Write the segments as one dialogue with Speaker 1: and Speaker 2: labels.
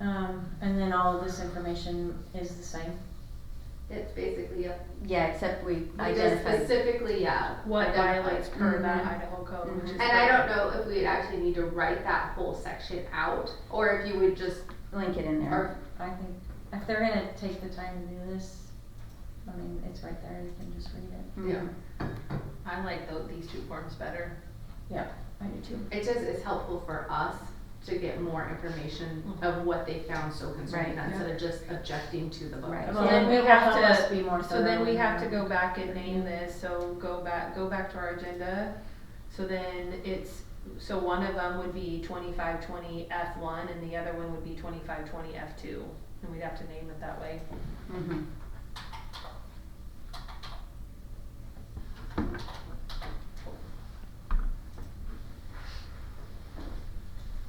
Speaker 1: Um, then all of this information is the same.
Speaker 2: It's basically, a-
Speaker 3: Yeah, except we
Speaker 2: we just
Speaker 3: identified.
Speaker 2: specifically, yeah.
Speaker 4: what
Speaker 2: identified.
Speaker 4: violates per that
Speaker 3: Mhm.
Speaker 4: Idaho code, which is.
Speaker 2: Mm-hmm. And I don't know if we'd actually need to write that whole section out, or if you would just,
Speaker 3: Link it in there.
Speaker 2: or,
Speaker 1: I think, if they're gonna take the time to do this, I mean, it's right there, you can just read it.
Speaker 3: Mhm.
Speaker 2: yeah.
Speaker 4: I like tho- these two forms better.
Speaker 1: Yeah,
Speaker 3: I do too.
Speaker 2: It just is helpful for us to get more information of what they found so concerning,
Speaker 3: Mm-hmm. Right.
Speaker 2: instead of just objecting to the book.
Speaker 3: Right.
Speaker 1: well,
Speaker 4: So then
Speaker 1: then
Speaker 4: we
Speaker 1: it will
Speaker 4: have
Speaker 1: help
Speaker 4: to-
Speaker 1: us be more
Speaker 4: So then we
Speaker 1: thorough
Speaker 4: have to
Speaker 1: and-
Speaker 4: go back and name this, so go back, go back to our agenda. So then it's, so one of them would be twenty-five twenty F one and the other one would be twenty-five twenty F two. And we'd have to name it that way.
Speaker 3: Mhm.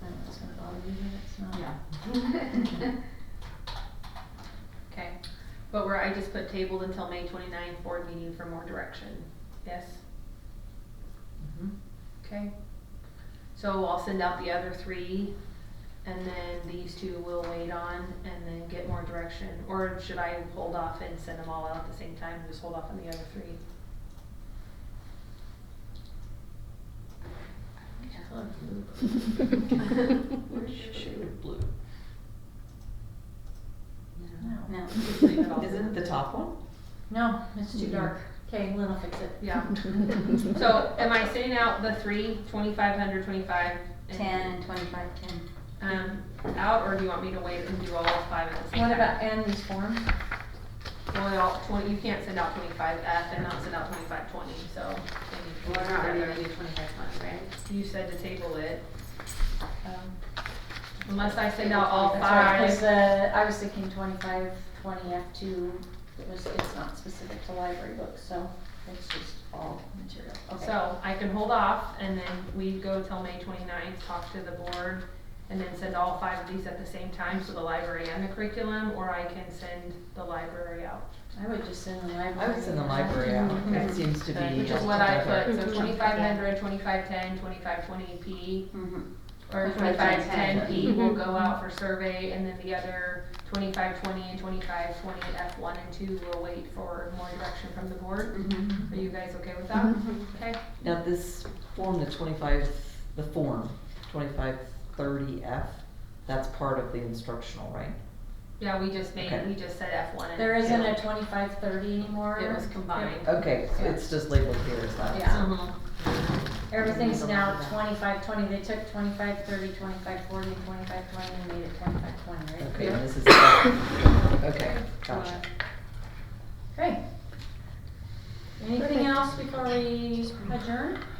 Speaker 1: I know it's gonna bother you, but it's not.
Speaker 2: Yeah.
Speaker 4: Okay, but where I just put tabled until May 29th board meeting for more direction, yes? Okay. So I'll send out the other three, and then these two will wait on, and then get more direction, or should I hold off and send them all out at the same time, and just hold off on the other three?
Speaker 5: blue?
Speaker 1: No,
Speaker 3: No.
Speaker 5: Is it the top one?
Speaker 1: no, it's too dark. Okay, Lynn will fix it.
Speaker 4: Yeah, so am I sending out the three, twenty-five hundred, twenty-five? and-
Speaker 3: Ten, twenty-five, ten.
Speaker 4: Um, out, or do you want me to wait and do all five at the same time?
Speaker 1: What about Annie's form?
Speaker 4: Well, y'all, twenty, you can't send out twenty-five F and not send out twenty-five twenty, so.
Speaker 2: We're
Speaker 4: they need to
Speaker 2: not
Speaker 4: be
Speaker 2: really
Speaker 4: together.
Speaker 2: gonna do twenty-five twenty, right?
Speaker 4: You said to table it. Um, Unless I send out all
Speaker 1: That's right,
Speaker 4: five.
Speaker 1: Cause the, I was thinking twenty-five, twenty F two, it was, it's not specific to library books, so it's just all material. Okay.
Speaker 4: So I can hold off and then we go till May 29th, talk to the board, and then send all five of these at the same time, so the library and the curriculum, or I can send the library out.
Speaker 1: I would just send the
Speaker 5: I
Speaker 1: library.
Speaker 5: would send the library out,
Speaker 4: Okay.
Speaker 5: it seems to be.
Speaker 4: Which is
Speaker 5: all
Speaker 4: what I
Speaker 5: together.
Speaker 4: put, so
Speaker 3: Mhm.
Speaker 4: twenty-five hundred, twenty-five ten, twenty-five twenty P, E.
Speaker 3: Mhm.
Speaker 4: or
Speaker 3: Twenty
Speaker 4: twenty-five
Speaker 3: five
Speaker 4: ten
Speaker 3: ten.
Speaker 4: P will go out for survey, and then the other twenty-five twenty and twenty-five twenty F one and two will wait for more direction from the board.
Speaker 3: Mhm.
Speaker 4: Are you guys okay with that? Okay,
Speaker 5: Now, this form, the twenty-five, the form, twenty-five thirty F, that's part of the instructional, right?
Speaker 4: yeah, we just made,
Speaker 5: Okay.
Speaker 4: we just said F one and.
Speaker 1: There isn't
Speaker 4: two.
Speaker 1: a twenty-five, thirty anymore.
Speaker 4: It was combined.
Speaker 5: Okay, so it's just labeled here as that.
Speaker 1: Yeah.
Speaker 4: Mhm.
Speaker 1: Everything's now twenty-five, twenty, they took twenty-five, thirty, twenty-five, forty, twenty-five, twenty, and made it twenty-five, twenty, right?
Speaker 5: Okay, and this is, okay, gotcha.
Speaker 1: Great. Anything else before we adjourn?